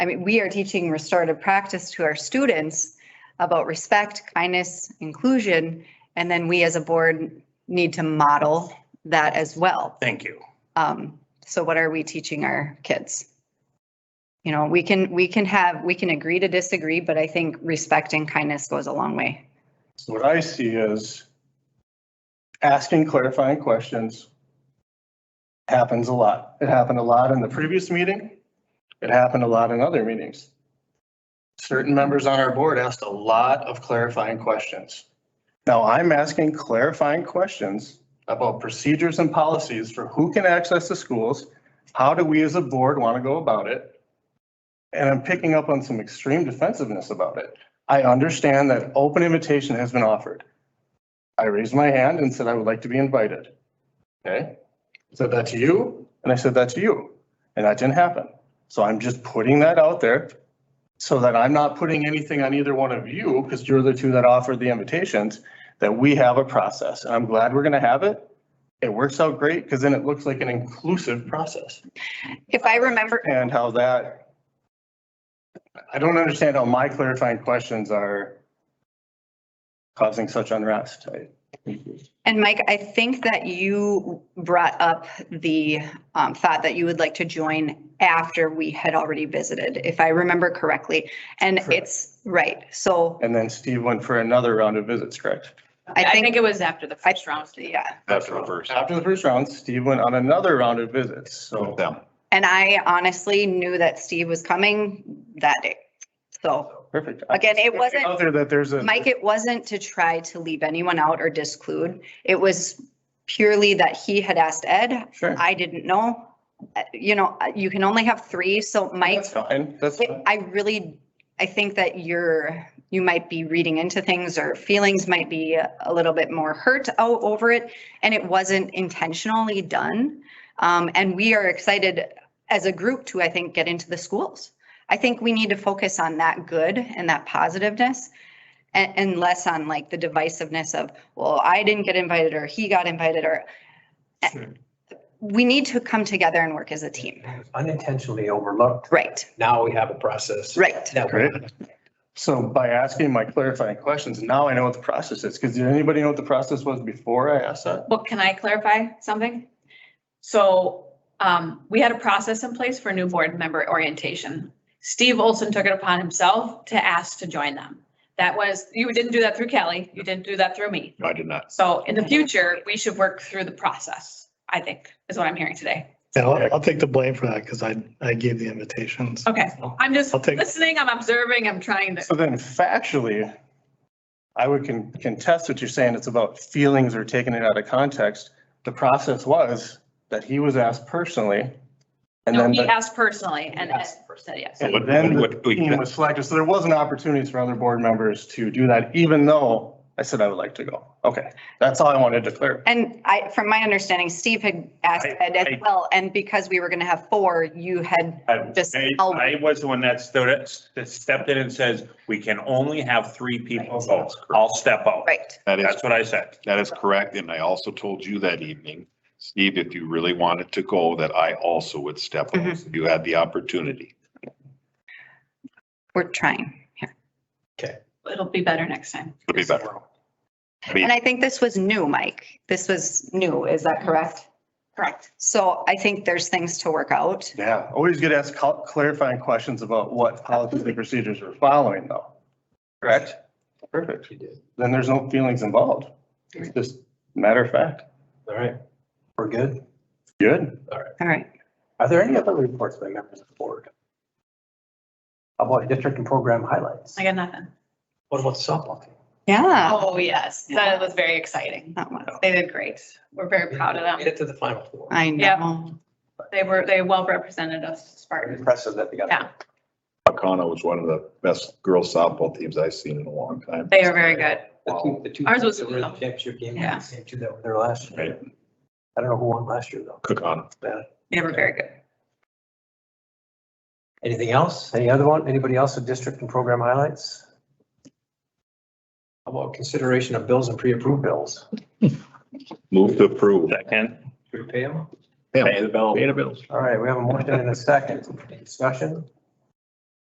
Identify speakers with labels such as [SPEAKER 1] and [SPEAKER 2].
[SPEAKER 1] I mean, we are teaching restorative practice to our students about respect, kindness, inclusion, and then we as a board need to model that as well.
[SPEAKER 2] Thank you.
[SPEAKER 1] Um, so what are we teaching our kids? You know, we can, we can have, we can agree to disagree, but I think respect and kindness goes a long way.
[SPEAKER 3] So what I see is asking clarifying questions happens a lot. It happened a lot in the previous meeting. It happened a lot in other meetings. Certain members on our board asked a lot of clarifying questions. Now I'm asking clarifying questions about procedures and policies for who can access the schools. How do we as a board want to go about it? And I'm picking up on some extreme defensiveness about it. I understand that open invitation has been offered. I raised my hand and said I would like to be invited. Okay? Said that to you, and I said that to you, and that didn't happen. So I'm just putting that out there so that I'm not putting anything on either one of you, because you're the two that offered the invitations, that we have a process. And I'm glad we're gonna have it. It works out great, because then it looks like an inclusive process.
[SPEAKER 1] If I remember,
[SPEAKER 3] And how that, I don't understand how my clarifying questions are causing such unrest. I-
[SPEAKER 1] and Mike, I think that you brought up the um, thought that you would like to join after we had already visited, if I remember correctly. And
[SPEAKER 3] Correct.
[SPEAKER 1] it's, right, so
[SPEAKER 3] And then Steve went for another round of visits, correct?
[SPEAKER 1] I
[SPEAKER 4] I
[SPEAKER 1] think,
[SPEAKER 4] think it was after the
[SPEAKER 1] I-
[SPEAKER 4] first round.
[SPEAKER 1] yeah.
[SPEAKER 5] After the first,
[SPEAKER 3] After the first round, Steve went on another round of visits, so.
[SPEAKER 5] with them.
[SPEAKER 1] And I honestly knew that Steve was coming that day. So
[SPEAKER 3] Perfect.
[SPEAKER 1] again, it wasn't,
[SPEAKER 3] Out there that there's a.
[SPEAKER 1] Mike, it wasn't to try to leave anyone out or disclude. It was purely that he had asked Ed.
[SPEAKER 3] Sure.
[SPEAKER 1] I didn't know. Uh, You know, uh, you can only have three, so Mike,
[SPEAKER 3] That's fine, that's,
[SPEAKER 1] I-
[SPEAKER 3] fine.
[SPEAKER 1] I really, I think that you're, you might be reading into things or feelings might be a little bit more hurt o- over it. And it wasn't intentionally done. Um, and we are excited as a group to, I think, get into the schools. I think we need to focus on that good and that positiveness and, and less on like the divisiveness of, well, I didn't get invited or he got invited or. eh, We need to come together and work as a team.
[SPEAKER 6] unintentionally overlooked.
[SPEAKER 1] Right,
[SPEAKER 6] Now we have a process.
[SPEAKER 1] right.
[SPEAKER 6] That
[SPEAKER 3] Right.
[SPEAKER 6] we
[SPEAKER 3] so by asking my clarifying questions, now I know what the process is, because did anybody know what the process was before I asked that?
[SPEAKER 4] Well, can I clarify something? So um, we had a process in place for new board member orientation. Steve Olson took it upon himself to ask to join them. That was, you didn't do that through Kelly, you didn't do that through me.
[SPEAKER 5] No, I did not.
[SPEAKER 4] So in the future, we should work through the process, I think, is what I'm hearing today.
[SPEAKER 7] Yeah, I'll, I'll take the blame for that because I, I gave the invitations.
[SPEAKER 4] Okay, I'm just
[SPEAKER 7] I'll take-
[SPEAKER 4] listening, I'm observing, I'm trying to.
[SPEAKER 3] So then factually, I would con- contest what you're saying, it's about feelings or taking it out of context. The process was that he was asked personally, and
[SPEAKER 4] No,
[SPEAKER 3] then
[SPEAKER 4] he
[SPEAKER 3] the
[SPEAKER 4] asked personally and Ed said yes.
[SPEAKER 3] And
[SPEAKER 5] What-
[SPEAKER 3] then the
[SPEAKER 5] what- what-
[SPEAKER 3] team was selected, so there was an opportunity for other board members to do that, even though I said I would like to go. Okay, that's all I wanted to clear.
[SPEAKER 1] And I, from my understanding, Steve had asked
[SPEAKER 8] I-
[SPEAKER 1] Ed as
[SPEAKER 8] I-
[SPEAKER 1] well, and because we were gonna have four, you had,
[SPEAKER 8] I
[SPEAKER 1] Just
[SPEAKER 8] I-
[SPEAKER 1] tell
[SPEAKER 8] I was the one that stood, it- that stepped in and says, we can only have three people vote. I'll step out.
[SPEAKER 1] right,
[SPEAKER 5] That is,
[SPEAKER 8] That's what I said.
[SPEAKER 5] that is correct. And I also told you that evening, Steve, if you really wanted to go, that I also would step up.
[SPEAKER 1] Mhm.
[SPEAKER 5] You had the opportunity.
[SPEAKER 1] we're trying.
[SPEAKER 4] It'll be better next time.
[SPEAKER 5] It'd be better. I mean,
[SPEAKER 1] And I think this was new, Mike. This was new, is that correct?
[SPEAKER 4] Correct.
[SPEAKER 1] So I think there's things to work out.
[SPEAKER 3] Yeah, always get asked cl- clarifying questions about what policies and procedures we're following though. Correct? Perfect.
[SPEAKER 6] You did.
[SPEAKER 3] Then there's no feelings involved. It's just matter of fact.
[SPEAKER 6] All right. We're good.
[SPEAKER 3] Good.
[SPEAKER 1] All right.
[SPEAKER 6] Are there any other reports by members of the board? How about district and program highlights?
[SPEAKER 4] I got nothing.
[SPEAKER 6] What about softball? team?
[SPEAKER 1] Yeah.
[SPEAKER 4] Oh, yes, that was very exciting.
[SPEAKER 1] that one.
[SPEAKER 4] They did great. We're very proud of
[SPEAKER 6] Made
[SPEAKER 4] them.
[SPEAKER 6] it to the final four.
[SPEAKER 1] I
[SPEAKER 4] Yeah.
[SPEAKER 1] know.
[SPEAKER 4] They were, they well represented us, Spartans.
[SPEAKER 6] Impressive that they got.
[SPEAKER 4] Yeah,
[SPEAKER 5] Akana was one of the best girls softball teams I've seen in a long time.
[SPEAKER 4] they are very good.
[SPEAKER 6] The two- the two
[SPEAKER 4] Ours was-
[SPEAKER 6] teams that were in the Championship game.
[SPEAKER 4] Yeah.
[SPEAKER 6] the Same two that were there last year. I don't know who won last year though.
[SPEAKER 5] Kakana.
[SPEAKER 6] Yeah.
[SPEAKER 4] They were very good.
[SPEAKER 6] Anything else? Any other one? Anybody else with district and program highlights? How about consideration of bills and pre-approved bills?
[SPEAKER 5] Move to approve.
[SPEAKER 8] Second.
[SPEAKER 6] Do we pay them?
[SPEAKER 5] Yeah.
[SPEAKER 8] Pay the bill.
[SPEAKER 5] Pay the bills.
[SPEAKER 6] All right, we have a motion and a second. Discussion?